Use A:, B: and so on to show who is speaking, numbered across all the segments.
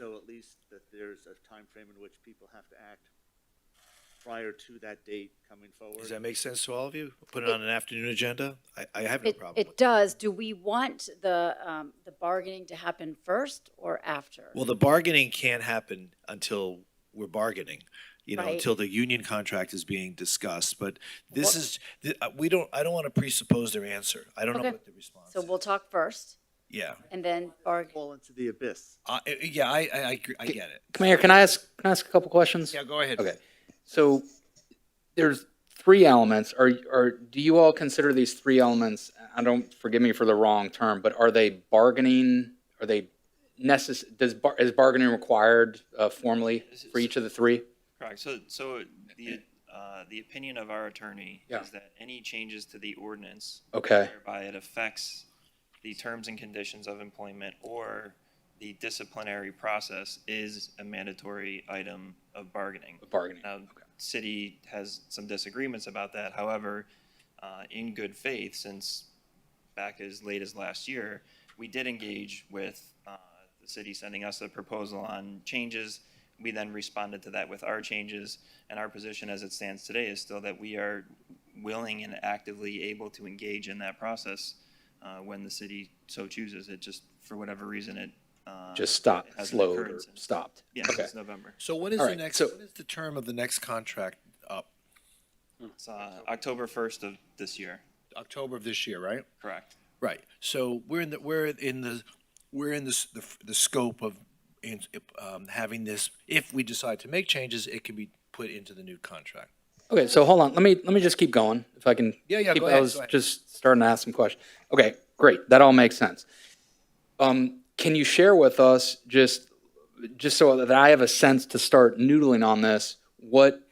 A: at least that there's a time frame in which people have to act prior to that date coming forward.
B: Does that make sense to all of you? Put it on an afternoon agenda? I, I have no
C: It,
B: problem
C: it
B: with it.
C: does. Do we want the, um, the bargaining to happen first or after?
B: Well, the bargaining can't happen until we're bargaining, you know,
C: Right.
B: until the union contract is being discussed. But this
C: Well-
B: is, th- uh, we don't, I don't want to presuppose their answer. I don't know
C: Okay.
B: what the response
C: So
B: is.
C: we'll talk first
B: Yeah,
C: and then bargain.
A: Fall into the abyss.
B: I- I- yeah, I, I, I agree- I get it.
D: Mayor, can I ask, can I ask a couple questions?
B: Yeah, go ahead.
D: Okay. So there's three elements. Are, are, do you all consider these three elements, I don't, forgive me for the wrong term, but are they bargaining? Are they necess, does, bar- is bargaining required uh, formally for each of the three?
E: Correct. So, so the, uh, the opinion of our attorney
D: Yeah.
E: is that any changes to the ordinance
D: Okay,
E: whereby it affects the terms and conditions of employment or the disciplinary process is a mandatory item of bargaining.
D: bargaining.
E: Now, city has some disagreements about that. However, uh, in good faith, since back as late as last year, we did engage with uh, the city sending us a proposal on changes. We then responded to that with our changes, and our position as it stands today is still that we are willing and actively able to engage in that process uh, when the city so chooses. It just, for whatever reason, it. uh,
D: Just stopped,
E: has an
D: slowed or
E: occurrence in-
D: stopped.
E: Yeah,
D: Okay.
E: it's November.
B: So what is
D: All
B: the
D: right,
B: next,
D: so-
B: what is the term of the next contract up?
E: It's uh, October 1st of this year,
B: October of this year, right?
E: correct?
B: Right. So we're in the, we're in the, we're in this, the, the scope of, in, um, having this, if we decide to make changes, it can be put into the new contract.
D: Okay, so hold on, let me, let me just keep going, if I can.
B: Yeah, yeah,
D: keep-
B: go ahead,
D: I was
B: go ahead.
D: just starting to ask some questions. Okay, great, that all makes sense. Um, can you share with us, just, just so that I have a sense to start noodling on this, what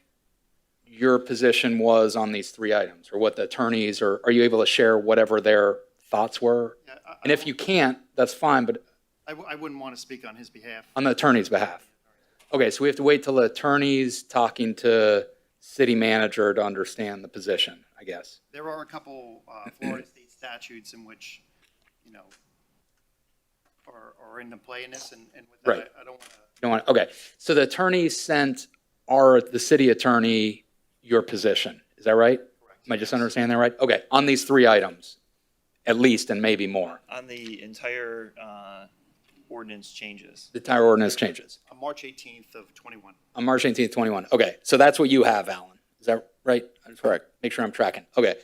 D: your position was on these three items, or what the attorneys, or are you able to share whatever their thoughts were?
F: Yeah, I- I
D: And if
F: don't-
D: you can't, that's fine, but
F: I, w- I wouldn't want to speak on his behalf.
D: on the attorney's behalf. Okay, so we have to wait till the attorney's talking to city manager to understand the position, I guess.
F: There are a couple uh, Florida state statutes in which, you know, are, are into play in this, and, and with
D: Right.
F: that, I- I don't want to
D: You don't want, okay, so the attorney sent our, the city attorney, your position, is that right? Am I just understanding that right? Okay, on these three items, at least, and maybe more,
E: On the entire uh, ordinance changes.
D: the entire ordinance changes.
F: on March 18th of 21.
D: On March 18th, 21, okay, so that's what you have, Alan, is that right? Correct. Make sure I'm tracking, okay.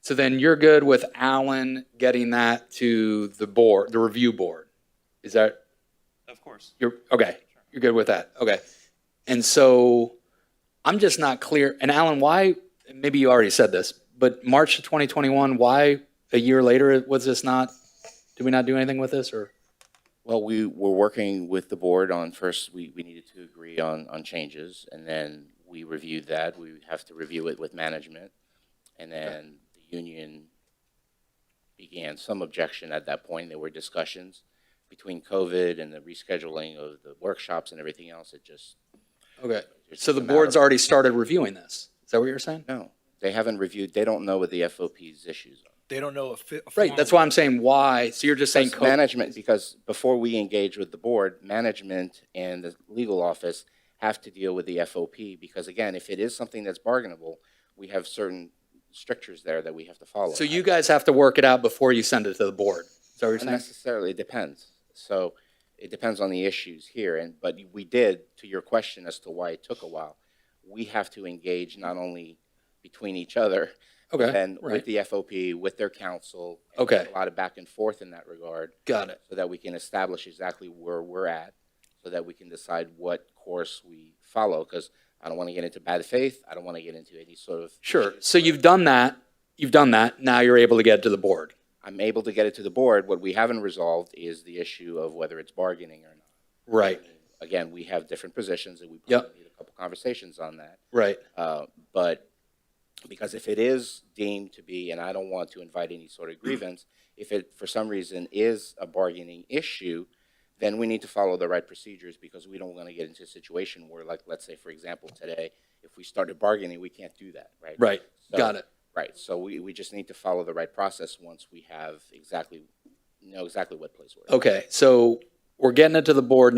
D: So then you're good with Alan getting that to the board, the review board? Is that,
E: Of course.
D: You're, okay, you're good with that, okay. And so, I'm just not clear, and Alan, why, maybe you already said this, but March of 2021, why a year later was this not, did we not do anything with this, or?
G: Well, we were working with the board on, first, we, we needed to agree on, on changes, and then we reviewed that. We would have to review it with management. And then the union began some objection at that point. There were discussions between COVID and the rescheduling of the workshops and everything else. It just.
D: Okay,
G: it
D: so the
G: just came out
D: board's
G: of-
D: already started reviewing this, is that what you're saying?
G: No, they haven't reviewed, they don't know what the FOP's issues are.
B: They don't know if. it-
D: Right, that's why I'm saying why, so you're just saying.
G: Because
D: co-
G: Management, because before we engage with the board, management and the legal office have to deal with the FOP, because again, if it is something that's bargainable, we have certain strictures there that we have to follow.
D: So you guys have to work it out before you send it to the board, is that what you're
G: Not
D: saying?
G: necessarily, it depends. So it depends on the issues here, and, but we did, to your question as to why it took a while, we have to engage not only between each other,
D: Okay,
G: and
D: right.
G: with the FOP, with their council. and
D: Okay.
G: A lot of back and forth in that regard.
D: Got it.
G: So that we can establish exactly where we're at, so that we can decide what course we follow, because I don't want to get into bad faith, I don't want to get into any sort of.
D: Sure, so you've done that, you've done that, now you're able to get it to the board.
G: I'm able to get it to the board, what we haven't resolved is the issue of whether it's bargaining or not.
D: Right,
G: Again, we have different positions, and we
D: Yep.
G: probably need a couple conversations on that.
D: right.
G: Uh, But, because if it is deemed to be, and I don't want to invite any sort of grievance, if it, for some reason, is a bargaining issue, then we need to follow the right procedures, because we don't want to get into a situation where, like, let's say, for example, today, if we started bargaining, we can't do that, right?
D: Right,
G: So-
D: got it.
G: Right, so we, we just need to follow the right process once we have exactly, know exactly what place we're in.
D: Okay, so we're getting it to the board